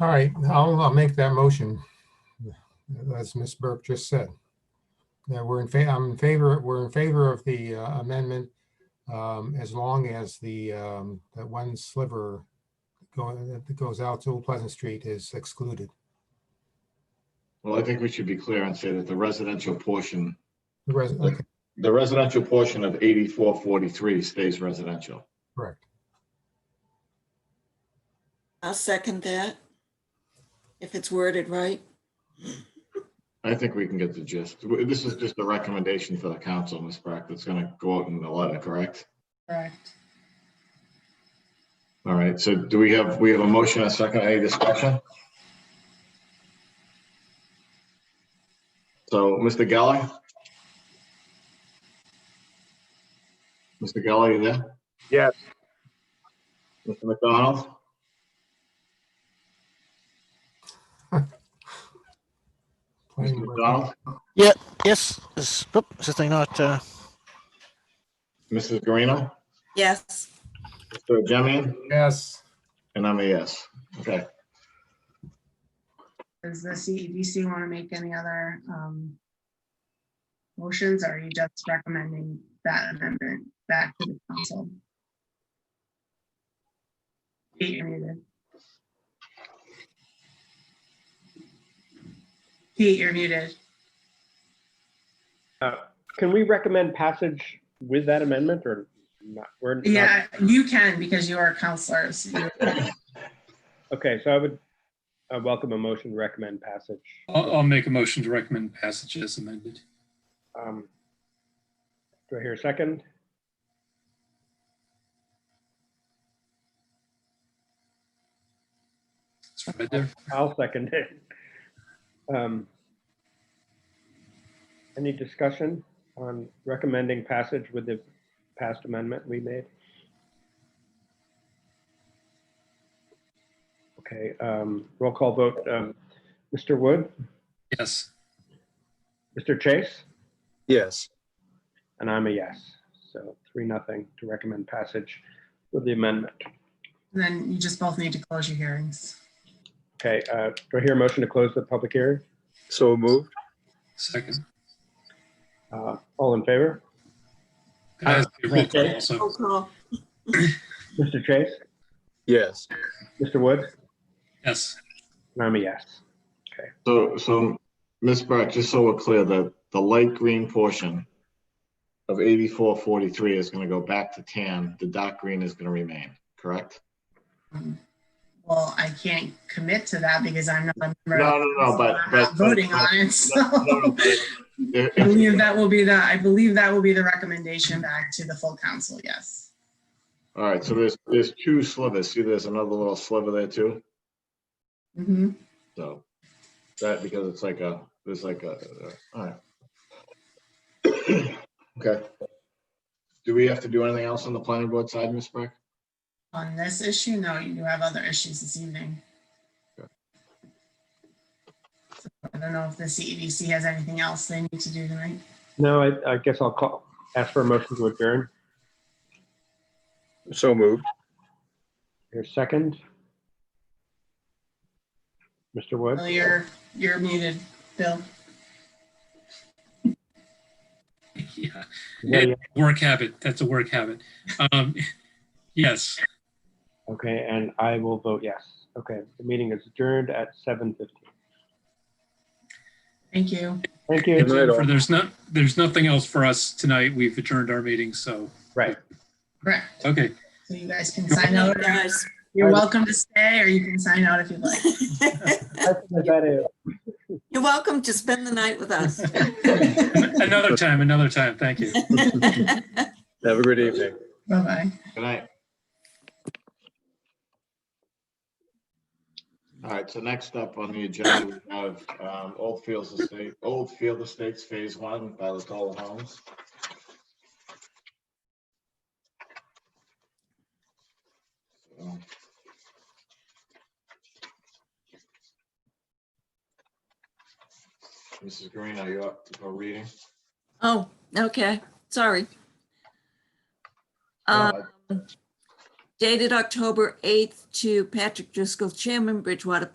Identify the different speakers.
Speaker 1: All right, I'll, I'll make that motion. As Ms. Burke just said. Yeah, we're in favor, I'm in favor, we're in favor of the uh, amendment um, as long as the, um, that one sliver going, that goes out to Old Pleasant Street is excluded.
Speaker 2: Well, I think we should be clear and say that the residential portion,
Speaker 1: The res, okay,
Speaker 2: the residential portion of eighty-four forty-three stays residential.
Speaker 1: correct.
Speaker 3: I'll second that. If it's worded right.
Speaker 2: I think we can get the gist. W- This is just a recommendation for the council, Ms. Brack, that's gonna go out in the letter, correct?
Speaker 4: Correct.
Speaker 2: All right, so do we have, we have a motion, and a second, any discussion? So, Mr. Geller? Mr. Geller, you there?
Speaker 5: Yes.
Speaker 2: Mr. McDonald?
Speaker 1: Planning
Speaker 2: Mr.
Speaker 1: board-
Speaker 2: McDonald?
Speaker 6: Yes, is, oop, is this thing not, uh,
Speaker 2: Mrs. Garino?
Speaker 3: Yes.
Speaker 2: Mr. Jemian?
Speaker 1: Yes,
Speaker 2: And I'm a yes. Okay,
Speaker 4: Does the E CEDC want to make any other um, motions? or Are you just recommending that amendment back to the council? Kate, you're muted. Kate, you're muted.
Speaker 7: Can we recommend passage with that amendment or not? We're not-
Speaker 4: Yeah, you can because you are counselors. You-
Speaker 7: Okay, so I would uh, welcome a motion to recommend passage.
Speaker 8: I'll, I'll make a motion to recommend passage as amended.
Speaker 7: Um, Do I hear a second?
Speaker 8: It's right there.
Speaker 7: I'll second it. Um, Any discussion on recommending passage with the past amendment we made? Okay, um, roll call vote. um, Mr. Wood,
Speaker 8: Yes.
Speaker 7: Mr. Chase?
Speaker 5: Yes.
Speaker 7: And I'm a yes. So three, nothing to recommend passage with the amendment.
Speaker 4: Then you just both need to close your hearings.
Speaker 7: Okay, uh, do I hear a motion to close the public hearing?
Speaker 5: So moved.
Speaker 8: Second.
Speaker 7: Uh, all in favor?
Speaker 8: It has to be a roll call
Speaker 7: Okay.
Speaker 3: Roll
Speaker 8: also.
Speaker 3: call.
Speaker 7: Mr. Chase?
Speaker 5: Yes.
Speaker 7: Mr. Wood?
Speaker 8: Yes.
Speaker 7: And I'm a yes.
Speaker 2: so, so, Ms. Burke, just so we're clear, the, the light green portion of eighty-four forty-three is gonna go back to tan, the dark green is gonna remain, correct?
Speaker 4: Um, Well, I can't commit to that because I'm not a member.
Speaker 2: No,
Speaker 4: of-
Speaker 2: no, no, but-
Speaker 4: I'm not
Speaker 2: but-
Speaker 4: Voting
Speaker 2: but-
Speaker 4: on it, so.
Speaker 2: If-
Speaker 4: I believe
Speaker 2: if-
Speaker 4: that will be the, I believe that will be the recommendation back to the full council, yes.
Speaker 2: All right, so there's, there's two slivers, see there's another little sliver there too,
Speaker 4: Mhm.
Speaker 2: so. That, because it's like a, there's like a, uh, all right. Okay. Do we have to do anything else on the planning board side, Ms. Burke?
Speaker 4: On this issue, no, you do have other issues this evening. So, I don't know if the CEDC has anything else they need to do tonight.
Speaker 7: No, I, I guess I'll call, ask for a motion to adjourn.
Speaker 5: So moved.
Speaker 7: Here's second. Mr. Wood?
Speaker 4: Bill, you're, you're muted, Bill.
Speaker 8: Yeah.
Speaker 7: Yeah, yeah.
Speaker 8: Work habit. That's a work habit. Um, yes.
Speaker 7: Okay, and I will vote yes. Okay, the meeting is adjourned at 7:15.
Speaker 4: Thank you.
Speaker 7: Thank you.
Speaker 5: Good night, all.
Speaker 8: For- There's not, there's nothing else for us tonight. We've adjourned our meeting, so,
Speaker 7: Right.
Speaker 4: Correct.
Speaker 8: okay.
Speaker 4: So you guys can sign out.
Speaker 3: Guys.
Speaker 4: You're welcome to stay or you can sign out if you'd like.
Speaker 3: You're welcome to spend the night with us.
Speaker 8: Another time, another time. Thank you.
Speaker 5: Have a good evening.
Speaker 4: Bye-bye.
Speaker 2: Good night. All right, so next up on the agenda, we have um, Old Fields Estate, Old Field Estates Phase One by the Toll Homes. Mrs. Green, are you up for reading?
Speaker 3: Oh, okay, sorry.
Speaker 2: No,
Speaker 3: Um, Dated October 8th to Patrick Driscoll, Chairman, Bridgewater